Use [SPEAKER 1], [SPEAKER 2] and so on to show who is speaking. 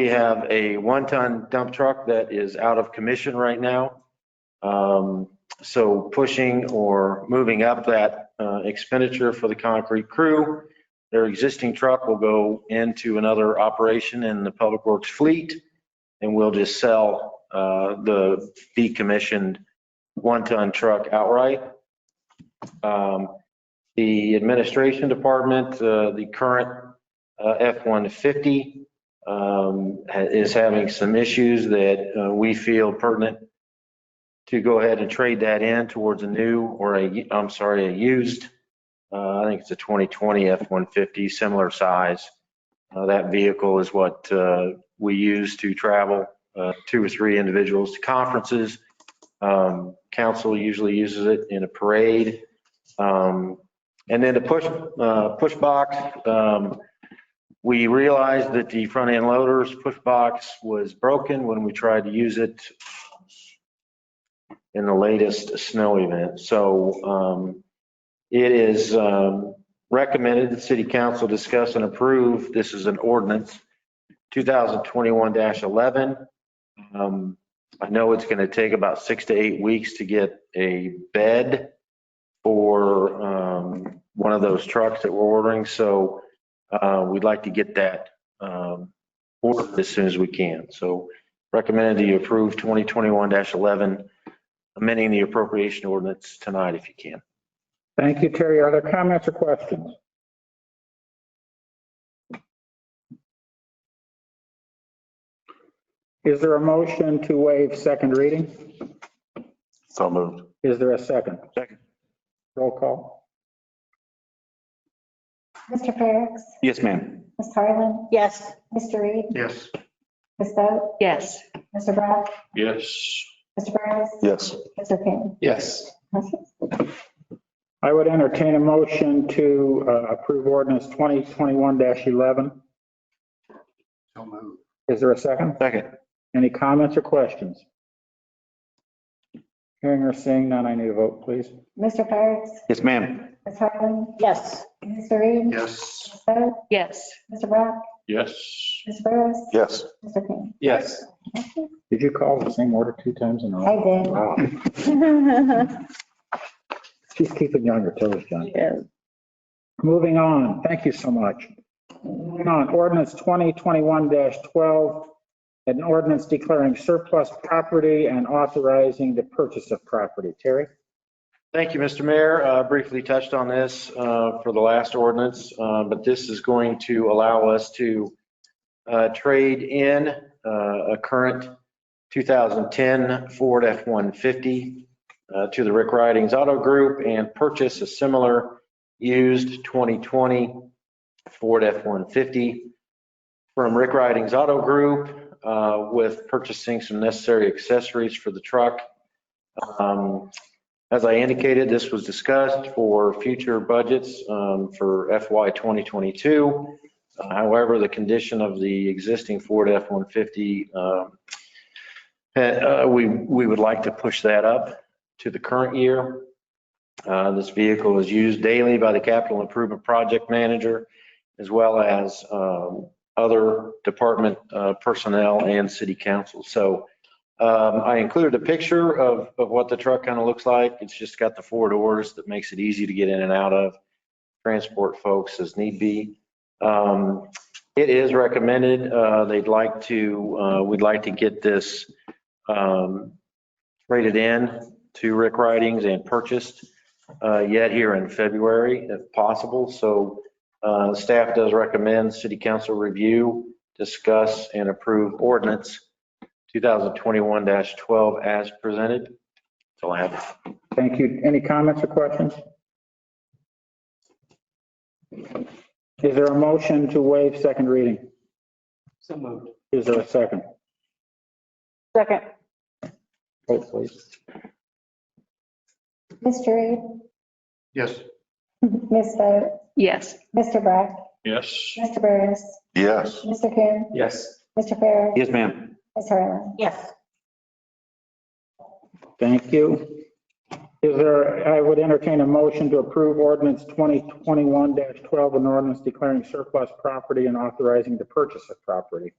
[SPEAKER 1] We have a one-ton dump truck that is out of commission right now. Um, So pushing or moving up that uh, expenditure for the concrete crew. Their existing truck will go into another operation in the Public Works fleet, and we'll just sell uh, the decommissioned one-ton truck outright. Um, The administration department, uh, the current uh, F-150 um, ha- is having some issues that uh, we feel pertinent to go ahead and trade that in towards a new or a, I'm sorry, a used, uh, I think it's a 2020 F-150, similar size. Uh, That vehicle is what uh, we use to travel, uh, two or three individuals to conferences. Um, Council usually uses it in a parade. Um, And then the push, uh, push box, um, we realized that the front end loader's push box was broken when we tried to use it in the latest snow event. So um, it is um, recommended that city council discuss and approve, this is an ordinance, 2021-11. Um, I know it's going to take about six to eight weeks to get a bed for um, one of those trucks that we're ordering. So uh, we'd like to get that um, ordered as soon as we can. So recommended that you approve 2021-11, amending the appropriation ordinance tonight if you can.
[SPEAKER 2] Thank you, Terry. Are there comments or questions? Is there a motion to waive second reading?
[SPEAKER 3] So moved.
[SPEAKER 2] Is there a second?
[SPEAKER 1] Second.
[SPEAKER 2] Roll call.
[SPEAKER 4] Mr. Ferricks,
[SPEAKER 3] Yes, ma'am.
[SPEAKER 4] Ms. Harlan,
[SPEAKER 5] Yes.
[SPEAKER 4] Mr. Reed,
[SPEAKER 1] Yes.
[SPEAKER 4] Ms. Boat,
[SPEAKER 5] Yes.
[SPEAKER 4] Mr. Brock,
[SPEAKER 3] Yes.
[SPEAKER 4] Mr. Burris,
[SPEAKER 3] Yes.
[SPEAKER 4] Mr. King.
[SPEAKER 3] Yes.
[SPEAKER 2] I would entertain a motion to uh, approve ordinance 2021-11.
[SPEAKER 3] So moved.
[SPEAKER 2] Is there a second?
[SPEAKER 1] Second.
[SPEAKER 2] Any comments or questions? Hearing or seeing none, I need a vote, please.
[SPEAKER 4] Mr. Ferricks,
[SPEAKER 3] Yes, ma'am.
[SPEAKER 4] Ms. Harlan,
[SPEAKER 5] Yes.
[SPEAKER 4] Mr. Reed,
[SPEAKER 3] Yes.
[SPEAKER 4] Ms. Boat,
[SPEAKER 5] Yes.
[SPEAKER 4] Mr. Brock,
[SPEAKER 3] Yes.
[SPEAKER 4] Mr. Burris,
[SPEAKER 3] Yes.
[SPEAKER 4] Mr. King.
[SPEAKER 3] Yes.
[SPEAKER 2] Did you call the same order two times in a
[SPEAKER 4] I
[SPEAKER 2] row?
[SPEAKER 4] did.
[SPEAKER 2] Wow, she's keeping you on your toes, John.
[SPEAKER 5] Yes.
[SPEAKER 2] Moving on, thank you so much. Moving on, ordinance 2021-12, an ordinance declaring surplus property and authorizing the purchase of property. Terry?
[SPEAKER 1] Thank you, Mr. Mayor. Uh, Briefly touched on this uh, for the last ordinance, uh, but this is going to allow us to uh, trade in uh, a current 2010 Ford F-150 uh, to the Rick Ridings Auto Group and purchase a similar used 2020 Ford F-150 from Rick Ridings Auto Group uh, with purchasing some necessary accessories for the truck. Um, as I indicated, this was discussed for future budgets um, for FY 2022. Uh, However, the condition of the existing Ford F-150, um, uh, we, we would like to push that up to the current year. Uh, This vehicle is used daily by the capital improvement project manager as well as um, other department uh, personnel and city council. So um, I included a picture of, of what the truck kind of looks like. It's just got the four doors that makes it easy to get in and out of, transport folks as need be. Um, it is recommended, uh, they'd like to, uh, we'd like to get this, um, rated in to Rick Ridings and purchased, uh, yet here in February if possible. So, uh, staff does recommend city council review, discuss and approve ordinance 2021-12 as presented. That's all I have.
[SPEAKER 2] Thank you. Any comments or questions? Is there a motion to waive second reading?
[SPEAKER 3] So moved.
[SPEAKER 2] Is there a second?
[SPEAKER 5] Second.
[SPEAKER 2] Vote, please.
[SPEAKER 4] Mr. Reed,
[SPEAKER 3] Yes.
[SPEAKER 4] Ms. Boat,
[SPEAKER 5] Yes.
[SPEAKER 4] Mr. Brock,
[SPEAKER 3] Yes.
[SPEAKER 4] Mr. Burris,
[SPEAKER 3] Yes.
[SPEAKER 4] Mr. King,
[SPEAKER 3] Yes.
[SPEAKER 4] Mr. Ferricks,
[SPEAKER 3] Yes, ma'am.
[SPEAKER 4] Ms. Harlan.
[SPEAKER 5] Yes.
[SPEAKER 2] Thank you. Is there, I would entertain a motion to approve ordinance 2021-12, an ordinance declaring surplus property and authorizing the purchase of property.